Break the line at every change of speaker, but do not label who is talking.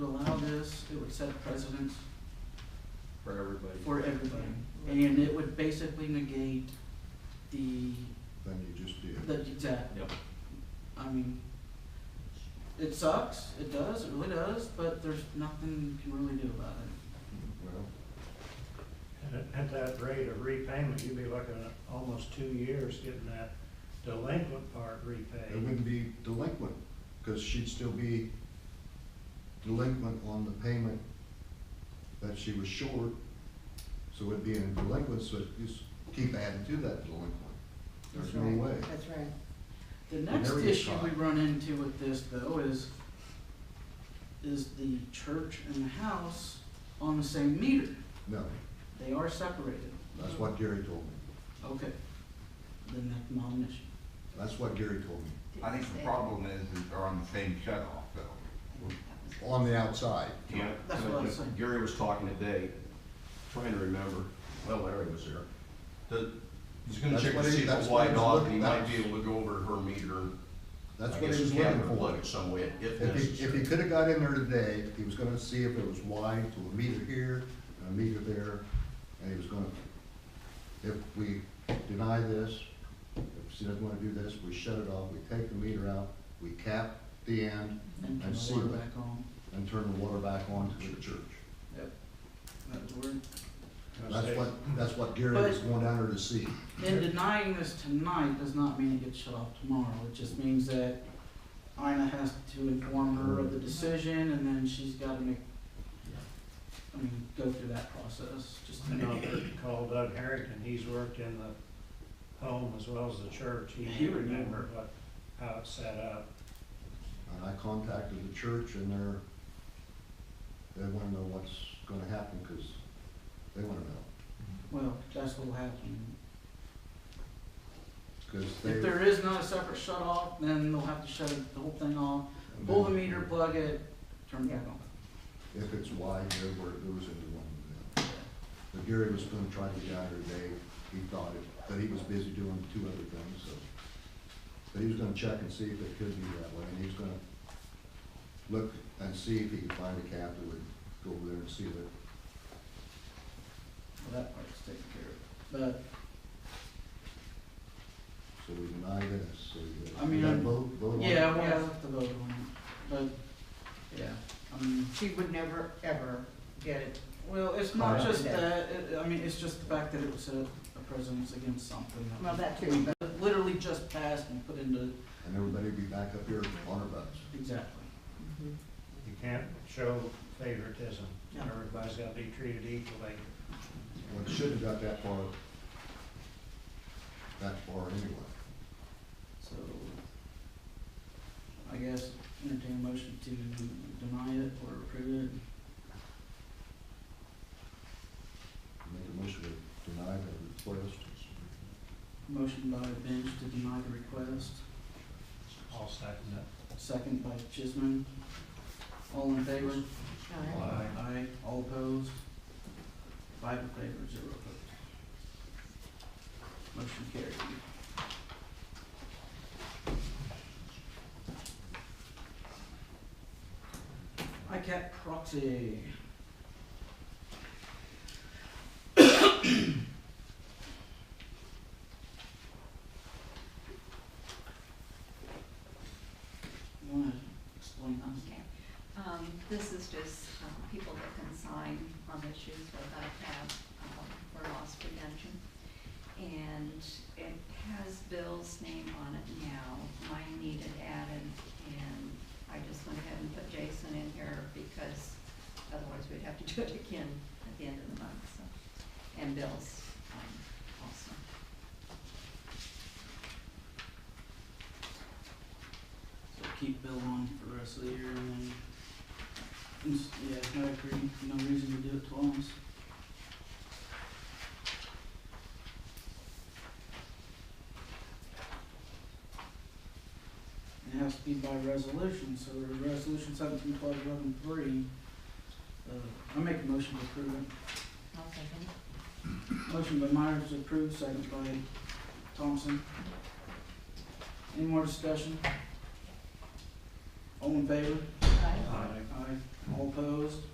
set precedence
for everybody.
for everybody. And it would basically negate the,
than you just did.
the, exact,
Yep.
I mean, it sucks, it does, it really does, but there's nothing you can really do about it.
Well,
At- At that rate of repayment, you'd be looking at almost two years getting that delinquent part
it
repaid.
wouldn't be delinquent, because she'd still be delinquent on the payment that she was short. So it'd be in delinquent, so it'd just keep adding to that delinquent. There's
That's
no
right.
way.
That's right.
The next
Whenever you
issue
try.
we run into with this though is, is the church and the house on the same meter.
No,
They are separated.
that's what Gary told me.
Okay, then that's not an issue.
That's what Gary told me,
I think the problem is that they're on the same shut-off though.
on the outside.
Yeah,
That's what I was saying.
Gary was talking today, trying to remember, well, Larry was there. The, he's gonna
That's
check
what
to
he-
see if
that's
it's
what he
wide
was
off,
looking-
he might
that's-
be able to go over her meter. and
That's
I
what
guess
he was
have
looking
her
for.
plug it Some way, if
If he, if he
necessary.
could have got in there today, he was gonna see if it was wide to a meter here, and a meter there, and he was gonna, if we deny this, if she doesn't wanna do this, we shut it off, we take the meter out, we cap the end
And turn
I see
the water
that.
back on.
and turn the water back on to the church.
That would work.
That's what, that's what Gary was going down there to see.
And denying this tonight does not mean it gets shut off tomorrow, it just means that Ina has to inform her of the decision, and then she's gotta make, I mean, go through that process, just to
You know,
make
if
it.
you Call Doug Harrington, he's worked in the home as well as the church,
He
he
would know.
remembered what, how it's set up.
And I contacted the church and they're, they wanna know what's gonna happen, cause they wanna know,
Well, that's what'll happen.
cause they.
If there is not a separate shut off, then they'll have to shut the whole thing off, pull the meter, plug it, turn it back on.
if it's wide there where it goes into one of them. But Gary was gonna try to get out there today, he thought it, but he was busy doing two other things, so. But he was gonna check and see if it could be that way, and he was gonna look and see if he could find a cap that would go over there and seal it.
Well, that part's taken care of,
So we deny this, so you.
I mean,
you gotta
I'm-
Vote, vote
but,
on it.
yeah, we'll have to vote on it, but, yeah, I mean.
She would never, ever get it.
Well, it's
Right.
not just that, it, I mean, it's just the fact that it was a, a precedence against something that.
Well, that too, but-
that Literally just passed and put into,
And everybody be back up here on our butts.
exactly.
You can't show favoritism,
No.
everybody's gotta be treated equally.
Well, it shouldn't have got that far, that far anyway.
So, I guess entertain a motion to deny it or approve it.
Make a motion to deny the request.
Motion by Bench to deny the request,
I'll second it.
second by Chisholm. All in favor?
Alright.
Aye. All opposed? Five in favor, zero opposed. Motion carried. ICAP proxy. You wanna explain that?
Okay, um, this is just, um, people that can sign on issues with ICAP, um, for loss prevention. And it has Bill's name on it now, mine needed added, and I just went ahead and put Jason in here because otherwise we'd have to do it again at the end of the month, so. And Bill's, um, also.
So keep Bill on for the rest of the year and then, and s- yeah, I agree, no reason to do it twice. And It has to be by resolution, so we're resolution seventeen twelve eleven three, uh, I make a motion to approve it.
I'll second it.
Motion by Myers to approve, second by Thompson. Any more discussion? All in favor?
Aye.
Aye, all opposed?